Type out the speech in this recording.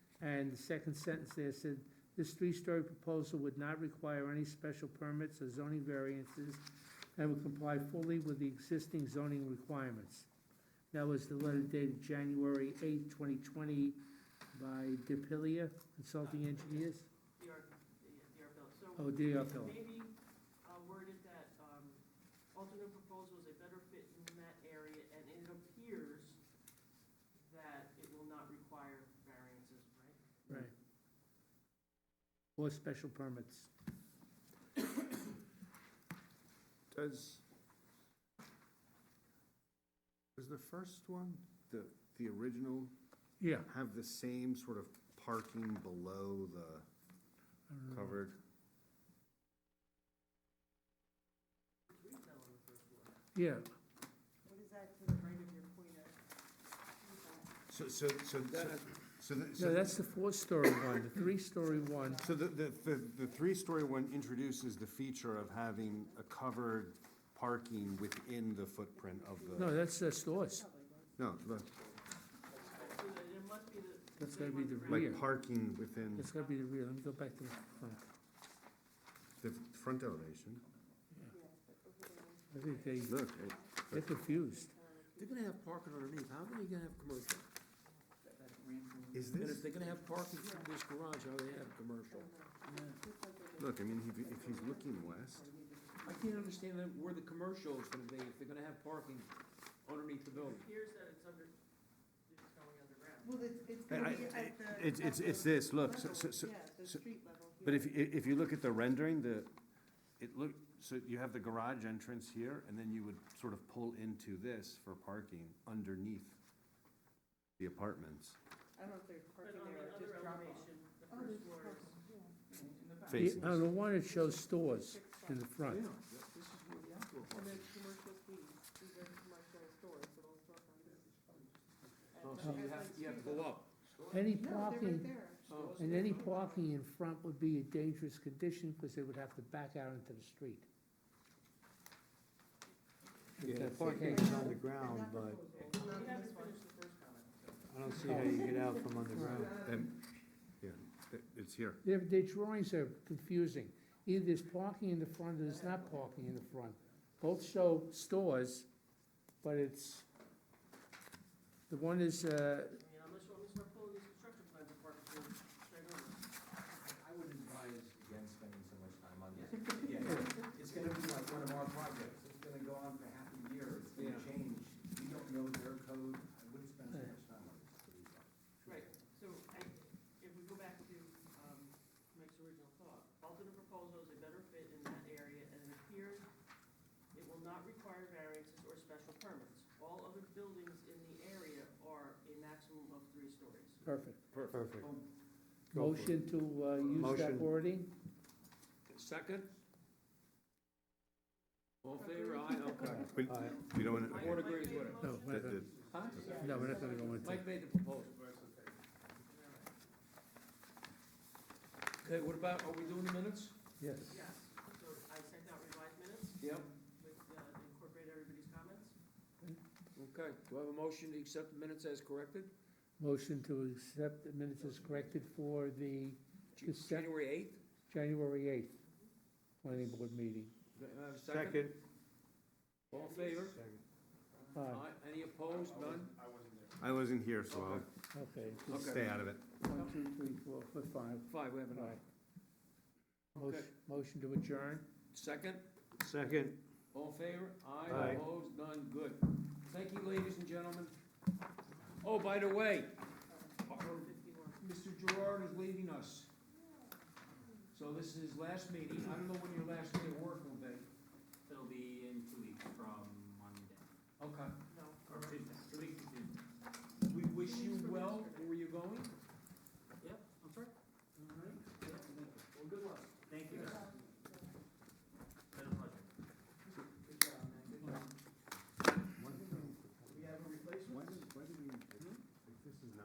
And the second sentence there said, this three-story proposal would not require any special permits or zoning variances and would comply fully with the existing zoning requirements. That was the letter dated January eighth, twenty twenty, by DePilia Consulting Engineers. DR, DR Bill. So Oh, D.R. Bill. maybe uh, worded that um, alternate proposal is a better fit in that area, and it appears that it will not require variances, right? Right. Or special permits. Does, does the first one, the, the original, Yeah. have the same sort of parking below the Mm. covered? Retail on the first floor. Yeah, What is that to the right of your pointer? So, so, so, that- so, the- no, so, that's the four-story one, the three-story one, so the, the, the, the three-story one introduces the feature of having a covered parking within the footprint of no, the, that's, that's ours. no, the- So that it must be the. That's same gotta be on the ground. Rear. like parking within It's gotta be the real, let me go back to the front. the front elevation. I think they, Look, it- they're confused. They're gonna have parking underneath, how are they gonna have commercial? is And this, if they're gonna have parking from this garage, how they have commercial? look, I mean, if, he- if he's looking west, I can't understand that- where the commercial is gonna be, if they're gonna have parking underneath the It building. appears that it's under, it's going underground. Well, it's, it's I- gonna I- be at the. it's, it's, at it's the this, look, so, level, so, so- Yeah, the so- street level. But yeah. if, i- if you look at the rendering, the, it look, so you have the garage entrance here, and then you would sort of pull into this for parking underneath the apartments. I don't know if there's But parking on the there, or other just drop off. Oh, elevation, the first floor is. Yeah, Facing. On the one, it shows stores in the front. this is where the outdoor And parking. there's commercial fees, these are commercial stores, little storefronts. And Oh, the so you other have, you have to go street level- up. Any No, they're right parking, there. Oh, and any parking in front would be a dangerous condition, because they would have to back out into the street. Yeah, That's- the parking is on the ground, but We Not haven't this one. finished the first comment. I don't see how you get out from underground. And, yeah, it- it's here. Their, their drawings are confusing. Either there's parking in the front or there's not parking in the front. Both show stores, but it's, the one is, uh, I mean, unless you want me to start pulling these construction plans apart, before we straight over. I would advise against spending so much time on this. Yeah, It's gonna be like one of our projects, it's gonna go on for half a year, it's gonna Yeah. change, we don't know their code, I wouldn't spend so much time on this. Right, so I, if we go back to, um, Mike's original thought, alternate proposal is a better fit in that area and it appears it will not require variances or special permits. All other buildings in the area are a maximum of three stories. perfect. Perfect. Go for it. Motion to, uh, use that Motion. wording? Second? All in favor, aye, okay. We All right. we don't want The to, board agrees with it. Oh, No, we're not gonna, Huh? no, we're not gonna go into it. Mike made the proposal. Okay, what about, are we doing the minutes? Yes. Yes, so I sent out revised minutes Yep. with, uh, incorporate everybody's comments. Okay, do I have a motion to accept the minutes as corrected? Motion to accept the minutes as corrected for the Ju- Just sec- January eighth? January eighth planning board meeting. Second? All in favor? Aye, Aye. Any opposed? None? I wasn't here, so I'll okay. Okay. stay out of it. One, two, three, four, four, five. Five, we have an All right. aye. Motion, motion to adjourn? Second? Second. All in favor? Aye. Aye, opposed? None? Good. Thank you, ladies and gentlemen. Oh, by the way, uh, Mr. Gerard is leaving us. So this is his last meeting. I don't know when your last day of work will